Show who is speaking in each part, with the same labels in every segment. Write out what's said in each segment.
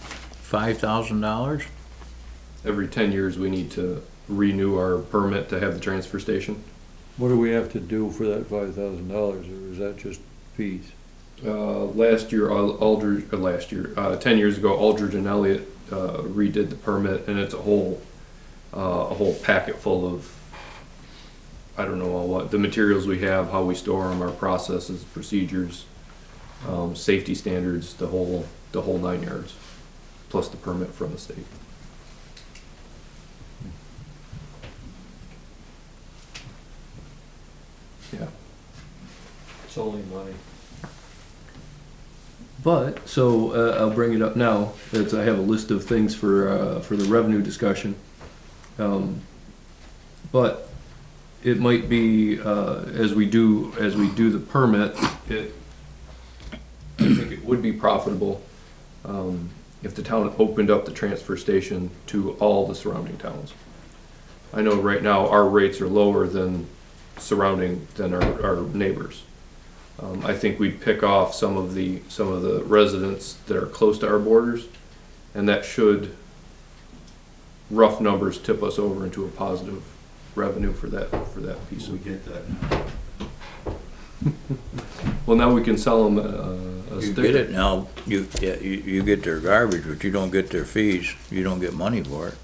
Speaker 1: five thousand dollars?
Speaker 2: Every ten years, we need to renew our permit to have the transfer station.
Speaker 3: What do we have to do for that five thousand dollars, or is that just fees?
Speaker 2: Uh, last year, Al- Aldridge, or last year, uh, ten years ago, Aldridge and Elliott, uh, redid the permit and it's a whole, uh, a whole packet full of, I don't know all what, the materials we have, how we store them, our processes, procedures, um, safety standards, the whole, the whole nine yards, plus the permit from the state. Yeah.
Speaker 3: It's only money.
Speaker 2: But so uh, I'll bring it up now. That's I have a list of things for uh, for the revenue discussion. Um, but it might be uh, as we do as we do the permit. It I think it would be profitable um, if the town opened up the transfer station to all the surrounding towns. I know right now our rates are lower than surrounding than our, our neighbors. Um, I think we'd pick off some of the, some of the residents that are close to our borders, and that should, rough numbers, tip us over into a positive revenue for that, for that piece
Speaker 4: We
Speaker 2: of.
Speaker 4: get that.
Speaker 2: Well, now we can sell them a, a
Speaker 1: You get
Speaker 2: sticker.
Speaker 1: it now, you, yeah, you, you get their garbage, but you don't get their fees, you don't get money for it.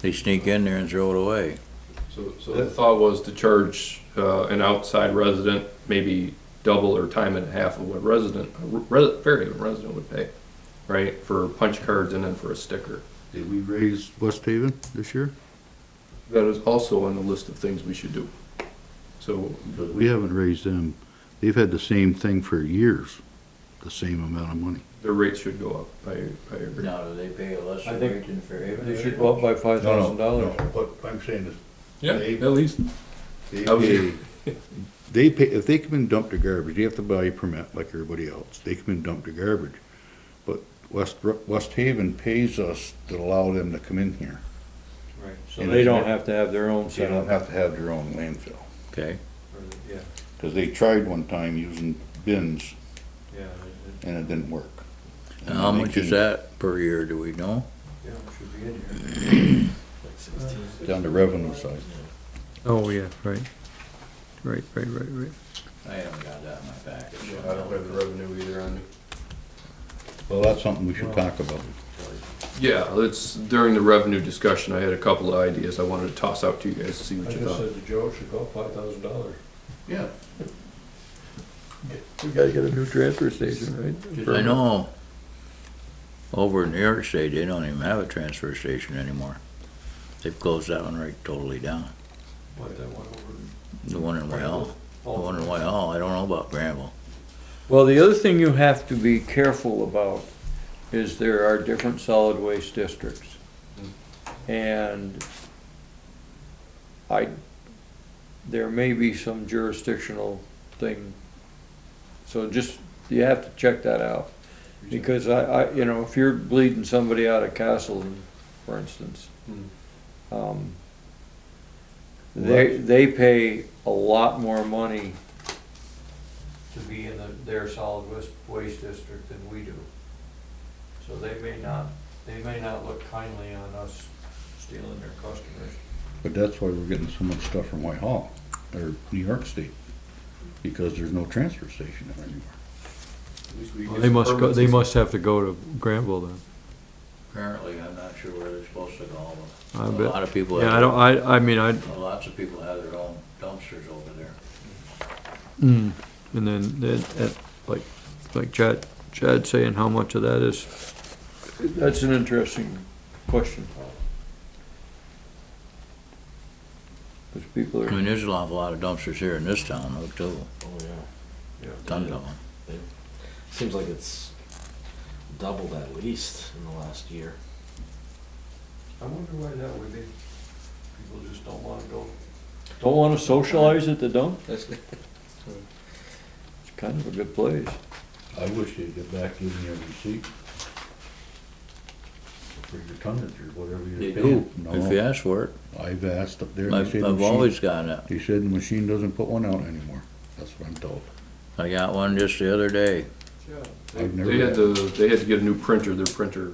Speaker 1: They sneak in there and throw it away.
Speaker 2: So, so the thought was to charge, uh, an outside resident maybe double or time and a half of what resident, a re- Fairhaven resident would pay, right? For punch cards and then for a sticker.
Speaker 4: Did we raise West Haven this year?
Speaker 2: That is also on the list of things we should do. So
Speaker 4: But we haven't raised them. They've had the same thing for years, the same amount of money.
Speaker 2: their rates should go up. I, I agree.
Speaker 1: Now, do they pay a lesser
Speaker 3: I think
Speaker 1: rate than Fairhaven?
Speaker 3: They should go up by five thousand dollars.
Speaker 4: What I'm saying is,
Speaker 2: Yeah,
Speaker 4: They-
Speaker 2: at least.
Speaker 4: they
Speaker 2: I was-
Speaker 4: pay, they pay, if they come and dump their garbage, they have to buy a permit like everybody else. They come and dump their garbage. But West, West Haven pays us to allow them to come in here.
Speaker 3: Right. So they don't have to have their own
Speaker 4: They
Speaker 3: set
Speaker 4: don't
Speaker 3: up.
Speaker 4: have to have their own landfill.
Speaker 1: Okay,
Speaker 3: Yeah,
Speaker 4: Cause they tried one time using bins
Speaker 3: yeah,
Speaker 4: and it didn't work.
Speaker 1: and how
Speaker 4: And they
Speaker 1: much is
Speaker 4: came
Speaker 1: that per year, do we know?
Speaker 3: yeah, should be in here.
Speaker 4: Down the revenue side.
Speaker 5: Oh, yeah, right. Right, right, right, right.
Speaker 1: I haven't got that in my package.
Speaker 2: the revenue either on me.
Speaker 4: Well, that's something we should talk about.
Speaker 2: Yeah, it's during the revenue discussion, I had a couple of ideas I wanted to toss out to you guys to see what you thought.
Speaker 3: to Joe, it should go up five thousand dollars.
Speaker 4: Yeah.
Speaker 5: We gotta get a new transfer station, right?
Speaker 1: I know, over in New York State, they don't even have a transfer station anymore. They've closed that one right totally down. The one in Wyoming, the one in Wyoming, I don't know about Granville.
Speaker 3: Well, the other thing you have to be careful about is there are different solid waste districts. And I, there may be some jurisdictional thing. So just, you have to check that out. Because I, I, you know, if you're bleeding somebody out of Castleton, for instance, um, they, they pay a lot more money to be in the- their solid waste, waste district than we do. So they may not, they may not look kindly on us stealing their customers.
Speaker 4: But that's why we're getting so much stuff from Whitehall, or New York State, because there's no transfer station there anymore.
Speaker 5: They must go, they must have to go to Granville then.
Speaker 1: Apparently, I'm not sure where they're supposed to go, but
Speaker 5: I
Speaker 1: a
Speaker 5: bet.
Speaker 1: lot of people,
Speaker 5: Yeah, I don't,
Speaker 1: have-
Speaker 5: I, I mean, I,
Speaker 1: lots of people have their own dumpsters over there.
Speaker 5: mm, and then, then, uh, like, like Chad, Chad saying how much of that is
Speaker 3: That's an interesting question. Because people
Speaker 1: I
Speaker 3: are.
Speaker 1: mean, there's an awful lot of dumpsters here in this town, though, too, ton of them.
Speaker 6: Oh, Seems like it's doubled at least in the last year.
Speaker 3: I wonder why that would be. People just don't wanna go. Don't wanna socialize at the dump? It's kind of a good place.
Speaker 4: I wish they'd get back to me every receipt. For your tonnage or whatever
Speaker 1: They
Speaker 4: you
Speaker 1: do.
Speaker 4: do.
Speaker 1: If you
Speaker 4: No,
Speaker 1: ask for it,
Speaker 4: I've asked up there, they
Speaker 1: I've,
Speaker 4: say the
Speaker 1: I've
Speaker 4: machine,
Speaker 1: always gotten it.
Speaker 4: they said the machine doesn't put one out anymore. That's what I'm told.
Speaker 1: I got one just the other day.
Speaker 4: I've never
Speaker 2: They had
Speaker 4: had-
Speaker 2: to, they had to get a new printer, their printer